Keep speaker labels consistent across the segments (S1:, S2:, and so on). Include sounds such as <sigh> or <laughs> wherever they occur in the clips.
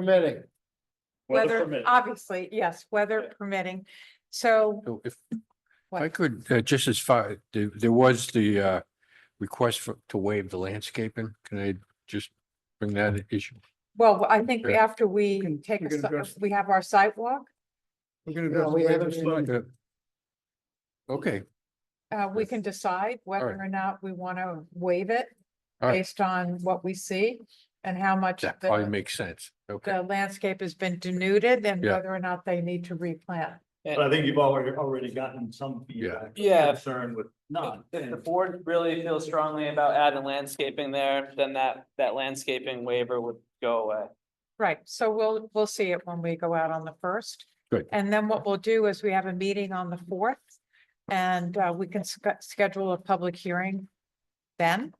S1: permitting.
S2: Weather, obviously, yes, weather permitting. So
S3: So if if I
S2: What?
S3: could, uh, just as far, there, there was the, uh, request for, to waive the landscaping. Can I just bring that issue?
S2: Well, I think
S3: Sure.
S2: after we take,
S4: we
S2: a
S4: can
S2: si-
S4: address-
S2: we have our sidewalk,
S4: We're gonna
S1: No,
S4: address
S1: we
S4: the
S1: haven't
S4: waivers.
S1: even-
S3: Uh, Okay,
S2: uh, we can decide whether
S3: Alright.
S2: or not we want to waive it
S3: Alright.
S2: based on what we see and how much
S3: that
S2: the-
S1: uh,
S3: probably makes sense. Okay,
S2: the landscape has been denuded and
S3: Yeah.
S2: whether or not they need to replant.
S5: But I think you've already, already gotten some feedback.
S6: Yeah.
S5: Concern with none.
S6: If the board really feels strongly about adding landscaping there, then that, that landscaping waiver would go away.
S2: Right, so we'll, we'll see it when we go out on the first.
S3: Good.
S2: And then what we'll do is we have a meeting on the fourth and uh, we can sc- schedule a public hearing then.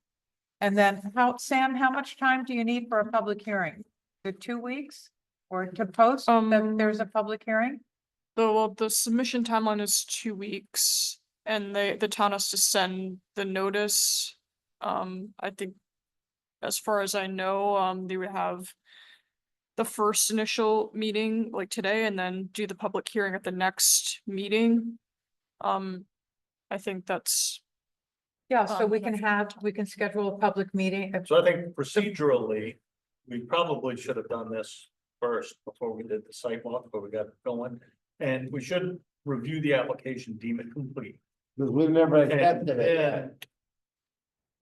S2: And then how, Sam, how much time do you need for a public hearing? The two weeks or to post that
S7: Um,
S2: there's a public hearing?
S7: The, well, the submission timeline is two weeks and they, the town has to send the notice. Um, I think as far as I know, um, they would have the first initial meeting like today and then do the public hearing at the next meeting. Um, I think that's,
S2: Yeah, so
S7: Um,
S2: we can have, we can schedule a public meeting. if-
S5: So I think procedurally, we probably should have done this first before we did the site walk, before we got going. And we should review the application, deem it complete.
S1: Because we've never
S5: And-
S1: accepted it.
S5: Yeah,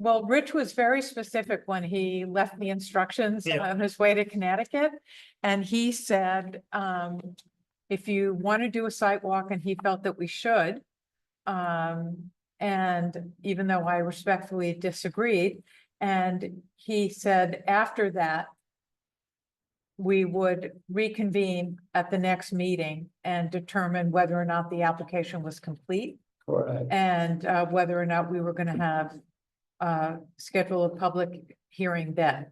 S2: Well, Rich was very specific when he left the instructions
S5: Yeah.
S2: on his way to Connecticut. And he said, um, if you want to do a site walk, and he felt that we should. Um, and even though I respectfully disagreed, and he said after that. We would reconvene at the next meeting and determine whether or not the application was complete.
S1: Correct.
S2: And uh, whether or not we were gonna have, uh, schedule a public hearing then.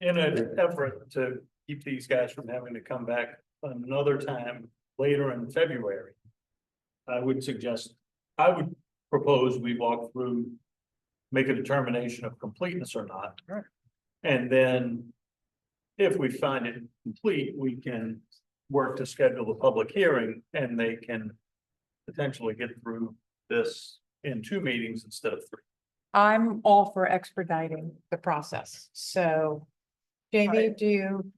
S5: in an effort to keep these guys from having to come back another time later in February. I would suggest, I would propose we walk through, make a determination of completeness or not. And then if we find it complete, we can work to schedule a public hearing and they can potentially get through this in two meetings instead of three.
S2: I'm all for expediting the process, so. Jamie,
S5: Right.
S2: do you?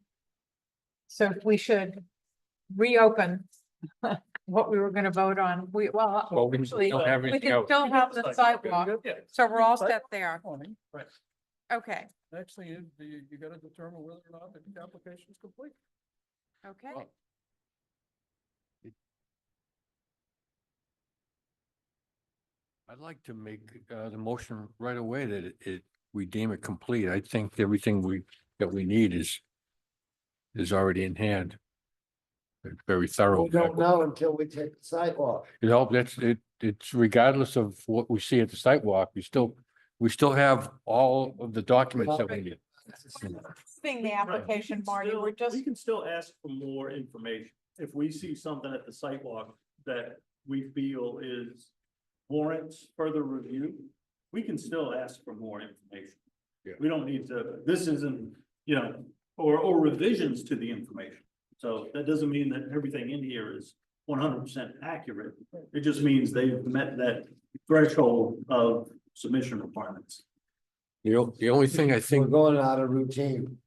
S2: So we should reopen <laughs> what we were gonna vote on, we, well,
S3: well, we
S2: actually,
S3: don't have
S2: we
S3: anything
S2: can
S3: else.
S2: still have the sidewalk,
S5: Yeah.
S2: so we're all set there,
S4: Morning. Right.
S2: okay,
S4: Next thing is, you, you gotta determine whether or not the application is complete.
S2: okay.
S3: Well, I'd like to make, uh, the motion right away that it- it, we deem it complete. I think everything we, that we need is, is already in hand. Very thorough.
S1: We don't know until we take the sidewalk.
S3: It help, that's, it, it's regardless of what we see at the sidewalk, we still, we still have all of the documents that we need.
S2: Being the
S5: Right. We
S2: application,
S5: can
S2: Marty,
S5: still-
S2: we're just,
S5: We can still ask for more information. If we see something at the sidewalk that we feel is warrants further review, we can still ask for more information.
S3: Yeah.
S5: We don't need to, this isn't, you know, or, or revisions to the information. So that doesn't mean that everything in here is one hundred percent accurate. It just means they've met that threshold of submission requirements.
S3: The, o- the only thing I
S1: We're
S3: think,
S1: going out of routine.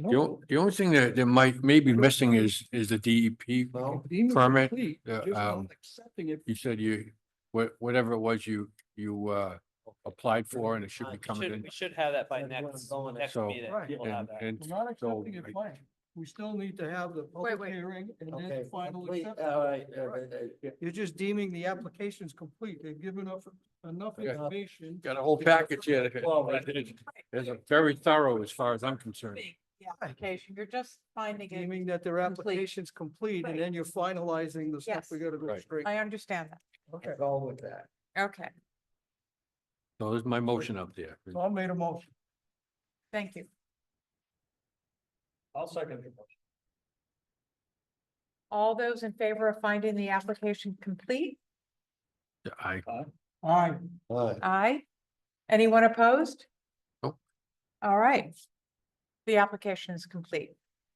S3: the, o- the only thing that, that might, may be missing is, is the E DEP.
S1: No,
S4: Deem it
S3: Permit,
S4: complete,
S3: uh,
S4: just not
S3: um,
S4: Accepting it.
S3: You said you, wha- whatever it was you, you, uh, applied for and it should be
S6: We
S3: coming
S6: Uh, should,
S3: in.
S6: we should have that by
S1: That's what I'm
S6: next,
S1: going
S6: next
S3: at.
S6: meeting.
S4: Right.
S6: We'll have
S3: And,
S6: that.
S3: and
S4: We're not
S3: so,
S4: accepting it
S3: I-
S4: blank. We still need to have the
S2: wait.
S4: public hearing and then
S1: okay.
S4: the final
S1: complete,
S4: acceptance.
S1: All right. uh, uh, uh,
S4: You're just deeming the application's complete. They've given up enough
S3: Okay.
S4: information.
S3: got a whole package here. that-
S1: Well,
S3: It's a very thorough as far as I'm concerned.
S2: being the application, you're just finding it,
S4: Deeming that their
S2: Complete.
S4: application's complete
S2: Right.
S4: and then you're finalizing the stuff. We
S2: Yes.
S4: gotta go
S3: Right.
S4: straight.
S2: I understand
S4: Okay,
S1: Go with that.
S2: that, okay,
S3: So there's my motion up there.
S4: so I made a motion.
S2: thank you.
S5: I'll second your motion.
S2: All those in favor of finding the application complete?
S3: I,
S4: All right.
S1: All right.
S2: Aye. Anyone opposed?
S3: Nope.
S2: All right. The application is complete.